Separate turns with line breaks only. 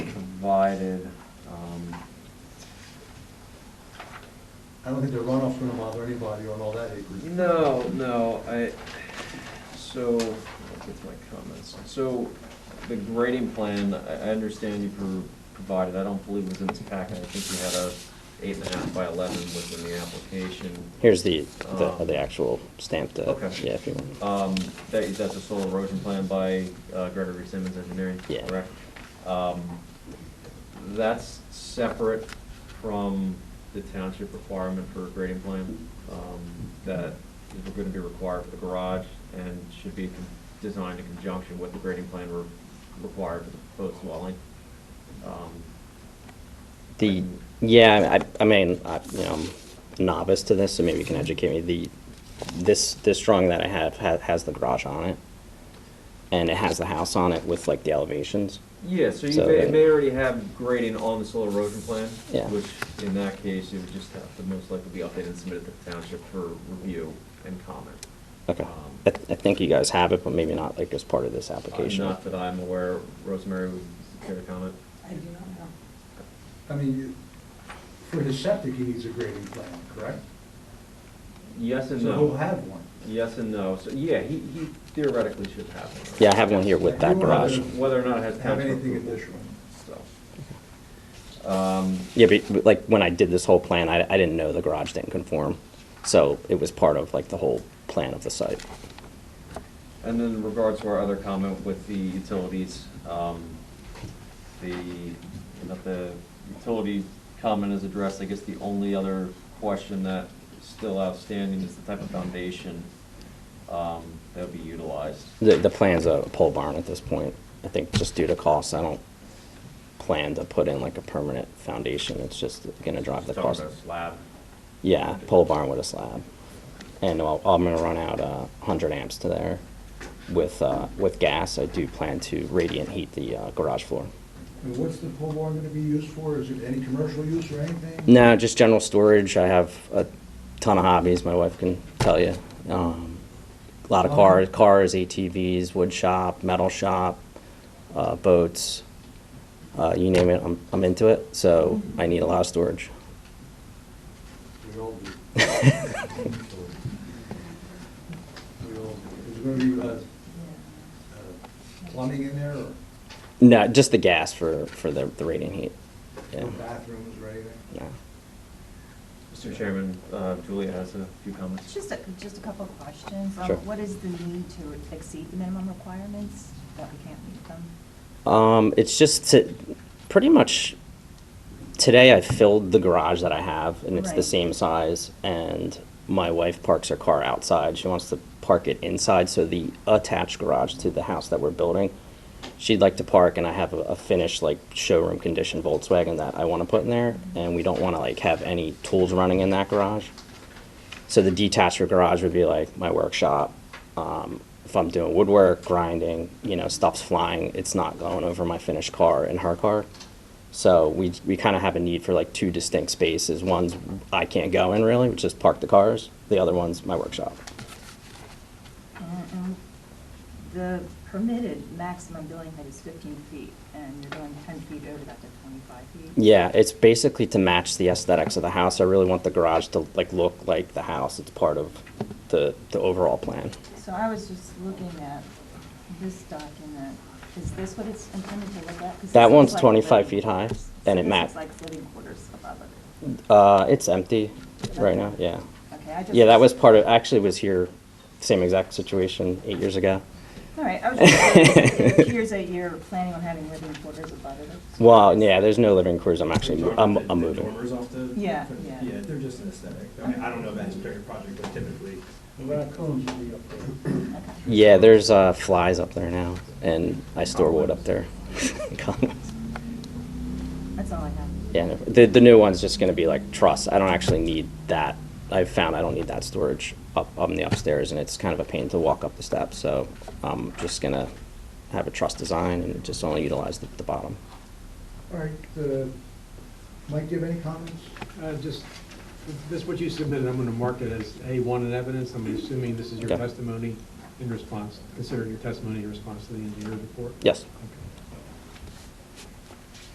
provided. Um,
I don't think the runoff gonna bother anybody on all that acreage.
No, no, I, so, I'll get to my comments. So, the grading plan, I, I understand you pro- provided, I don't believe it was in this packet. I think you had a eight and a half by eleven was in the application.
Here's the, the,
Um,
the actual stamped, uh,
Okay.
yeah, if you want.
Um, that, that's a soil erosion plan by uh, Gregory Simmons Engineering,
Yeah.
correct? Um, that's separate from the township requirement for a grading plan, um, that is gonna be required for the garage and should be con- designed in conjunction with the grading plan re- required for the proposed dwelling. Um,
The, yeah, I, I mean, I, you know, I'm novice to this, so maybe you can educate me. The, this, this drawing that I have has, has the garage on it. And it has the house on it with like the elevations.
Yeah, so you
So
may,
that-
it may already have grading on the soil erosion plan.
Yeah.
Which, in that case, it would just have to most likely be updated and submitted to the township for review and comment.
Okay.
Um,
I, th- I think you guys have it, but maybe not like as part of this
Uh,
application.
Not that I'm aware, Rosemary, would you care to comment?
I do not know.
I mean, you- for his septic, he needs a grading plan, correct?
Yes and
So he'll
no.
have one.
Yes and no, so, yeah, he he theoretically should have one.
Yeah, I have one here with that
You wanna-
garage.
Whether or not it has
Have
township
anything
approval,
additional?
so. Um,
Yeah, but but, like when I did this whole plan, I, I didn't know the garage didn't conform. So it was part of like the whole plan of the site.
And then in regards to our other comment with the utilities, um, the, that the utility comment is addressed, I guess the only other question that is still outstanding is the type of foundation um, that would be utilized.
The, the plan's a pole barn at this point. I think just due to costs, I don't plan to put in like a permanent foundation. It's just gonna drive the
Just talking
cost.
about Slab.
Yeah, pole barn with a slab. And I'll, I'm gonna run out uh hundred amps to there. With, uh, with gas, I do plan to radiant heat the uh, garage floor.
And what's the pole barn gonna be used for? Is it any commercial use or anything?
No, just general storage. I have a ton of hobbies, my wife can tell you. Um, a lot of cars, cars, ATVs, wood shop, metal shop, uh, boats, uh, you name it, I'm, I'm into it. So I need a lot of storage.
We all do. We all do. Is there gonna be, uh, uh, plumbing in there or
No, just the gas for, for the, the radiant heat. Yeah.
or bathrooms or anything?
No.
Mr. Chairman, uh, Julia has a few comments.
Just a, just a couple of questions. Um,
Sure.
What is the need to exceed the minimum requirements that we can't meet them?
Um, it's just to, pretty much today I filled the garage that I have and it's the
Right.
same size and my wife parks her car outside. She wants to park it inside, so the attached garage to the house that we're building. She'd like to park and I have a, a finished like showroom condition Volkswagen that I want to put in there and we don't want to like have any tools running in that garage. So the detached garage would be like my workshop. Um, if I'm doing woodwork, grinding, you know, stuff's flying, it's not going over my finished car and her car. So we, we kind of have a need for like two distinct spaces. One's I can't go in really, which is park the cars. The other one's my workshop.
And- and The permitted maximum building height is 15 feet, and you're going 10 feet over that to 25 feet?
Yeah, it's basically to match the aesthetics of the house. I really want the garage to like look like the house. It's part of the, the overall plan.
So I was just looking at this document. Is this what it's intended to look at? 'Cause
That
this
one's
looks like
25
living
feet high,
quarters.
and it
This
ma-
looks like living quarters above it.
Uh, it's empty right now, yeah.
Okay, I just.
Yeah, that was part of, actually was here, same exact situation eight years ago.
All right, I was just, it appears that you're planning on having living quarters above it.
Well, yeah, there's no living quarters, I'm actually, mo- I'm, I'm moving.
Dormers off the.
Yeah, yeah.
Yeah, they're just an aesthetic. I mean, I don't know about his particular project, but typically,
The raccoons will be up there.
Okay.
Yeah, there's, uh, flies up there now, and I store wood up there. Cobwebs.
That's all I have.
Yeah, no- the, the new one's just gonna be like truss, I don't actually need that, I've found I don't need that storage up, on the upstairs, and it's kind of a pain to walk up the steps, so I'm just gonna have a truss design and just only utilize the, the bottom.
All right, uh, Mike, do you have any comments?
Uh, Just, this, what you submitted, I'm going to mark it as A1 in evidence. I'm assuming this is your
Okay.
testimony in response, considering your testimony in response to the engineer's report?
Yes.
Okay.